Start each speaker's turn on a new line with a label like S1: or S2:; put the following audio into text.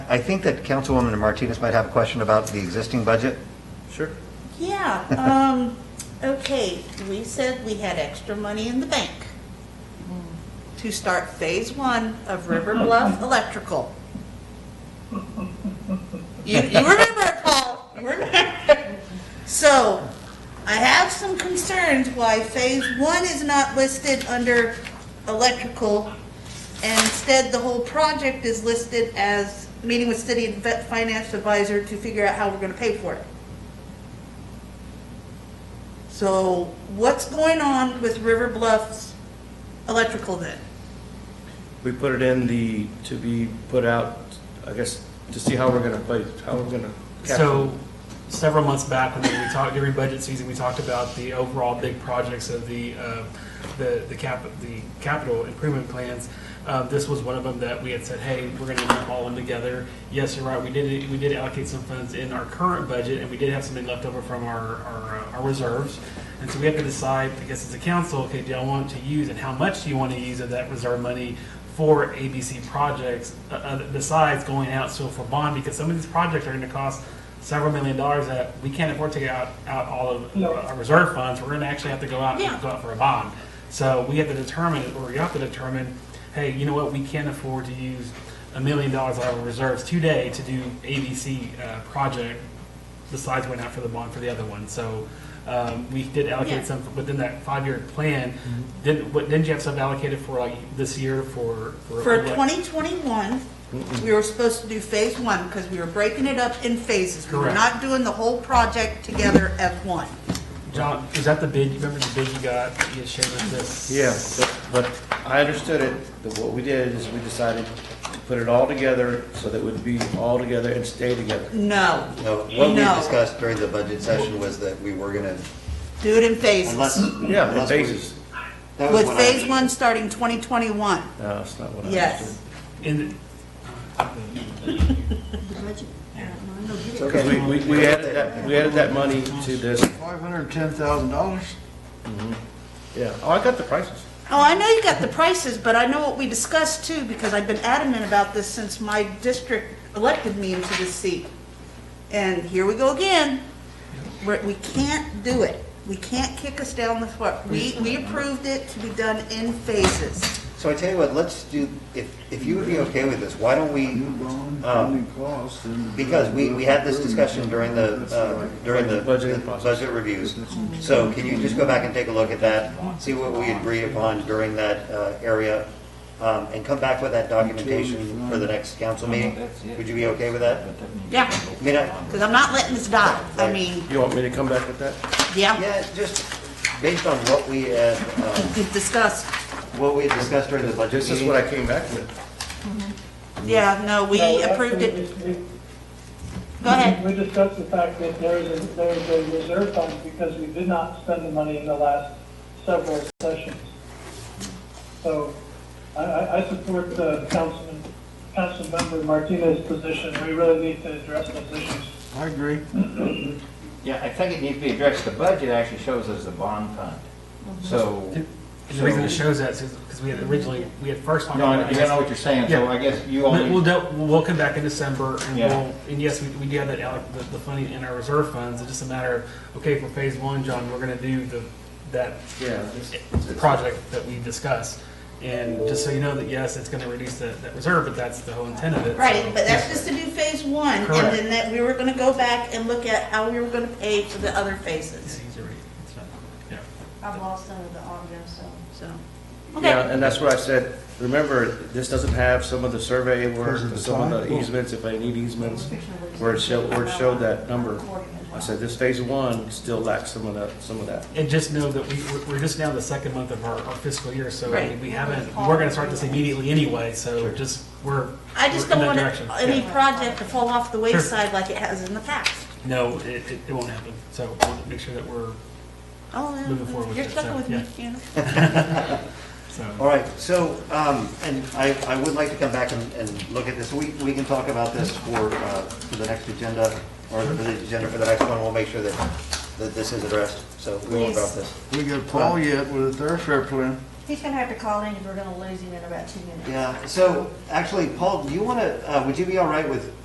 S1: I think that Councilwoman Martinez might have a question about the existing budget.
S2: Sure.
S3: Yeah, um, okay, we said we had extra money in the bank to start phase one of River Bluff Electrical. You, you remember it, Paul, you remember. So, I have some concerns why phase one is not listed under electrical. And instead, the whole project is listed as meeting with city and vet- finance advisor to figure out how we're gonna pay for it. So what's going on with River Bluff's electrical then?
S2: We put it in the, to be put out, I guess, to see how we're gonna play, how we're gonna capture.
S4: So several months back, when we talked, during budget season, we talked about the overall big projects of the, uh, the, the cap, the capital improvement plans. Uh, This was one of them that we had said, hey, we're gonna lump all of them together. Yes, you're right, we did, we did allocate some funds in our current budget, and we did have something left over from our, our, uh, our reserves. And so we have to decide, I guess as a council, okay, do I want to use and how much do you want to use of that reserve money for ABC projects uh, uh, besides going out so for bond? Because some of these projects are going to cost several million dollars that we can't afford to get out, out all of our reserve funds. We're going to actually have to go out
S3: Yeah.
S4: and go out for a bond. So we have to determine, or you have to determine, hey, you know what, we can't afford to use a million dollars out of our reserves today to do ABC uh, project besides went out for the bond for the other one. So um, we did
S3: Yeah.
S4: allocate some within that five-year plan. Didn't, what- didn't you have some allocated for like this year for?
S3: For
S4: elec-
S3: 2021, we were supposed to do phase one because we were breaking it up in phases. We were
S4: Correct.
S3: not doing the whole project together as one.
S4: John, is that the bid, you remember the bid you got, you shared with this?
S2: Yeah, but- but I understood it, that what we did is we decided to put it all together so that it would be all together and stay together.
S3: No,
S1: No, what we
S3: No.
S1: discussed during the budget session was that we were going to,
S3: do it in phases.
S1: unless.
S2: Yeah, the
S1: unless we-
S2: basis.
S1: that was
S3: With
S1: what I-
S3: phase one starting 2021,
S2: No, that's not what I
S3: yes.
S2: understood.
S4: And
S2: Because we, we we added that, we added that money to this,
S5: Five hundred and ten thousand dollars?
S2: yeah. Oh, I got the prices.
S3: Oh, I know you got the prices, but I know what we discussed too, because I've been adamant about this since my district elected me into this seat. And here we go again. We're- We can't do it. We can't kick us down the foot. We, we approved it to be done in phases.
S1: So I tell you what, let's do, if, if you would be okay with this, why don't we, um, because we, we had this discussion during the, uh, during the
S2: Budgeting
S1: the
S2: process.
S1: budget reviews. So can you just go back and take a look at that, see what we agreed upon during that uh, area, um, and come back with that documentation for the next council meeting? Would you be okay with that?
S3: Yeah.
S1: I mean, I-
S3: Because I'm not letting this die. I mean,
S2: You want me to come back with that?
S3: yeah,
S1: yeah, just based on what we had, uh,
S3: we've discussed.
S1: what we had discussed during the budget
S2: This is
S1: meeting.
S2: what I came back with.
S3: Yeah, no, we
S6: No, that's
S3: approved
S6: when
S3: it.
S6: we- we-
S3: Go ahead.
S6: We discussed the fact that there is, a- there is a reserve fund because we did not spend the money in the last several sessions. So I, I, I support the councilman, councilmember Martinez's position. We really need to address those issues.
S5: I agree.
S7: Yeah, I think it needs to be addressed. The budget actually shows us the bond fund. So,
S4: and the reason it shows that is because we had originally, we had first talked
S7: no,
S4: about.
S7: I I know what you're saying, so
S4: Yeah.
S7: I guess you
S4: But We'll,
S7: only,
S4: do- we'll come back in December and
S7: Yeah.
S4: we'll, and yes, we, we do have that, alloc- the, the funding in our reserve funds. It's just a matter of, okay, for phase one, John, we're gonna do the, that
S2: Yeah.
S4: project that we discussed. And just so you know that, yes, it's gonna reduce that, that reserve, but that's the whole intent of it.
S3: Right,
S4: so-
S3: but that's just to do phase one. And
S4: Correct.
S3: then that, we were going to go back and look at how we were going to pay for the other phases.
S4: Yeah, he's already- it's not- yeah.
S8: I've lost some of the audio, so.
S3: So,
S2: Yeah,
S3: okay,
S2: and that's what I said, remember, this doesn't have some of the survey work,
S5: Because of the
S2: some of
S5: side?
S2: the easements, if I need easements, where it showed, where it showed that number. I said, this phase one still lacks some of that, some of that.
S4: And just know that we, we're- we're just now the second month of our, our fiscal year, so I mean,
S3: Right.
S4: we haven't, we're gonna start this immediately anyway, so just, we're.
S3: I just
S4: we're
S3: don't
S4: in that
S3: want
S4: direction.
S3: it- any
S4: Yeah.
S3: project to fall off the wayside like it has in the past.
S4: No, it, it, it won't happen, so we'll make sure that we're,
S3: Oh, yeah,
S4: Moving forward with
S3: you're
S4: it,
S3: stuck
S4: so,
S3: with me, you know?
S4: so.
S1: All right, so, um, and I, I would like to come back and, and look at this. We, we can talk about this for, uh, for the next agenda, or for the agenda for the next one. We'll make sure that, that this is addressed, so we won't drop this.
S5: We got
S1: Uh,
S5: Paul yet with a thoroughfare plan.
S8: He's gonna have to call in, 'cause we're gonna lose him in about two minutes.
S1: Yeah, so, actually, Paul, do you want to, uh, would you be all right with